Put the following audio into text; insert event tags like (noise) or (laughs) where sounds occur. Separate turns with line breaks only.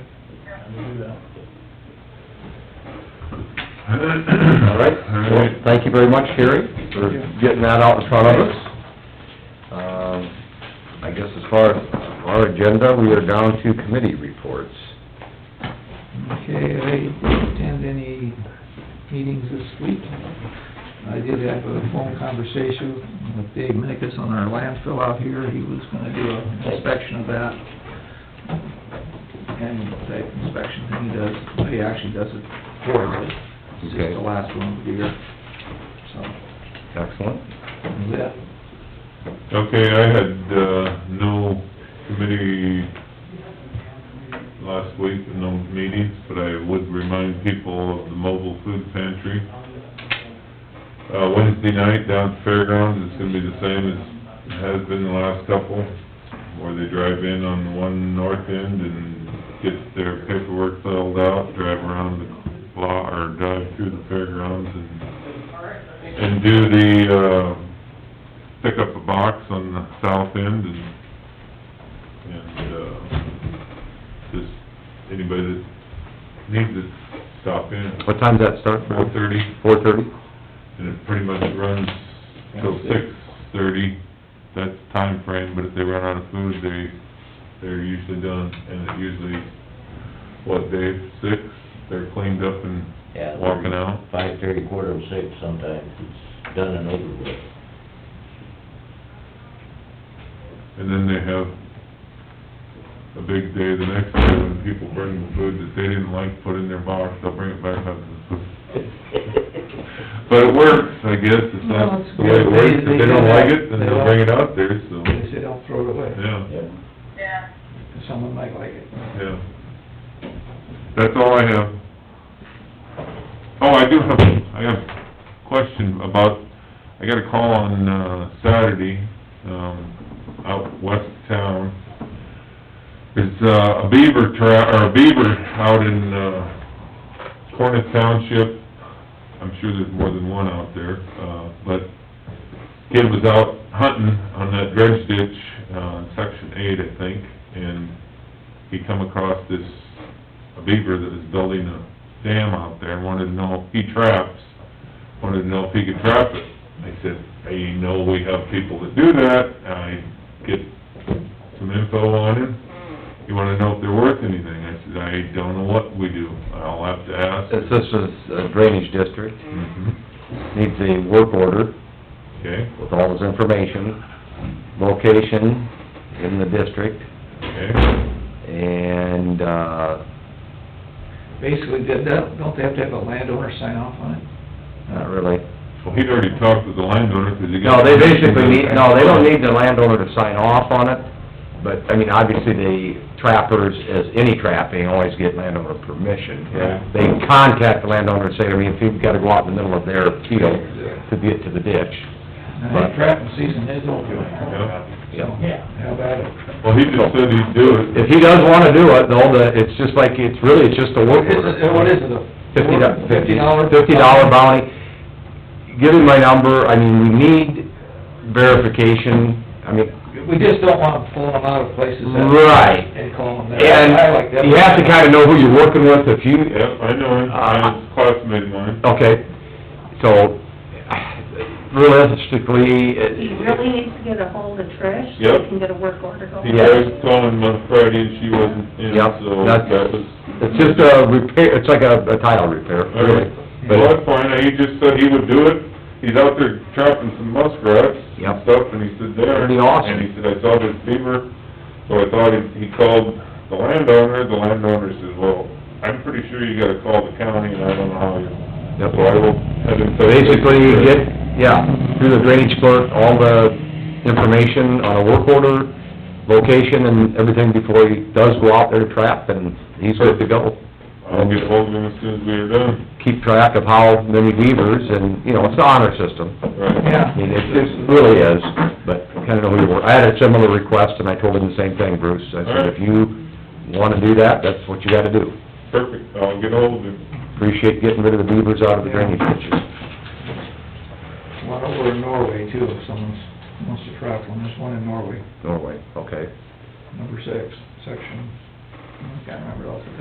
to do that.
All right, well, thank you very much, Sherry, for getting that out in front of us. Um, I guess as far as our agenda, we are down to committee reports.
Okay, I didn't attend any meetings this week. I did have a phone conversation with Dave Minnickus on our landfill out here. He was gonna do an inspection of that. Annual type inspection thing he does. He actually does it quarterly. It's just
Okay.
the last one of the year. So,
Excellent.
that's it.
Okay, I had, uh, no committee last week, and no meetings, but I would remind people of the mobile food pantry. Uh, Wednesday night down at Fairgrounds, it's gonna be the same as it has been the last couple, where they drive in on the one north end and get their paperwork filled out, drive around the block, or drive through the fairgrounds and and do the, uh, pick up a box on the south end and, and, uh, just anybody that needs it, stop in.
What time's that start?
Four thirty,
Four thirty?
and it pretty much runs till six thirty, that's time frame. but if they run out of food, they, they're usually done, and it usually, what, day six, they're cleaned up and
Yeah,
walking out.
Five thirty, quarter of six sometimes, it's done and over with.
And then they have a big day the next day when people bring the food that they didn't like, put in their box, they'll bring it back up.
(laughs)
But it works, I guess, it's
Well,
not
it's
the way it
good. They-
works, if
they
they don't
don't-
like it, then
they
they'll
don't-
bring it out there, so,
They say don't throw it away,
yeah,
Yeah.
Yeah.
'cause someone might like it.
yeah. That's all I have. Oh, I do have, I have a question about, I got a call on, uh, Saturday, um, out west of town. It's, uh, a beaver tra, or a beaver out in, uh, Cornet Township. I'm sure there's more than one out there, uh, but kid was out hunting on that dredge ditch, uh, section eight, I think, and he come across this, a beaver that was building a dam out there, and wanted to know, he traps, wanted to know if he could trap it. I said, I know we have people that do that, I get some info on him, you wanna know if they're worth anything? I said, I don't know what we do, I'll have to ask.
This is a drainage district,
Mhm.
needs a work order
Okay,
with all this information, location in the district,
okay.
and, uh,
Basically, did that, don't they have to have a landowner sign off on it?
not really.
Well, he'd already talked with the landowner, 'cause he
No,
got...
they basically need, no, they don't need the landowner to sign off on it, but, I mean, obviously, the trappers, as any trapping, always get landowner permission.
Right.
They contact the landowner and say, I mean, if you've gotta go out in the middle of their field to get to the ditch.
And that trapping season is over.
Yeah.
Yeah.
How about it?
Well, he just said he'd do it.
If he does wanna do it, though, the, it's just like, it's really, it's just a work
What is it, what
order.
is it, a?
Fifty do-
Fifty dollar?
Fifty dollar bounty. Give him my number, I mean, we need verification, I mean,
We just don't want them pulling them out of places that-
right.
and calling them. that. I like that.
And you have to kinda know who you're working with if you,
Yep, I know
Uh,
him, I was a classmate of mine.
okay, so, realistically,
He
it-
really needs to get a hold of Trish, so
Yep.
he can get a work order going.
He tried calling on Friday and she wasn't in,
Yep,
so
that's-
that was...
it's just a repair, it's like a a tile repair, really. But-
Well, that's fine, he just said he would do it, he's out there trapping some muskrats and
Yep.
stuff, and he said there...
Pretty awesome.
And he said, I saw this beaver, so I thought he, he called the landowner, the landowner says, well, I'm pretty sure you gotta call the county, and I don't know how you...
Yep.
So I will have him... touch base
Basically, you
with-
get, yeah, through the drainage clerk, all the information on a work order, location and everything before he does go out there to trap, and he's good to go.
I'll get hold of him as soon as we are done,
Keep track of how many beavers, and, you know, it's the honor system.
right?
I mean, it, it really is, but kinda know who you were. I had a similar request, and I told him the same thing, Bruce. I said, if you wanna do that, that's what you gotta do.
Perfect, I'll get hold of him.
Appreciate getting rid of the beavers out of the drainage ditches.
One over in Norway too, if someone's, wants to trap one, there's one in Norway,
Norway, okay.
number six, section, I can't remember off the top.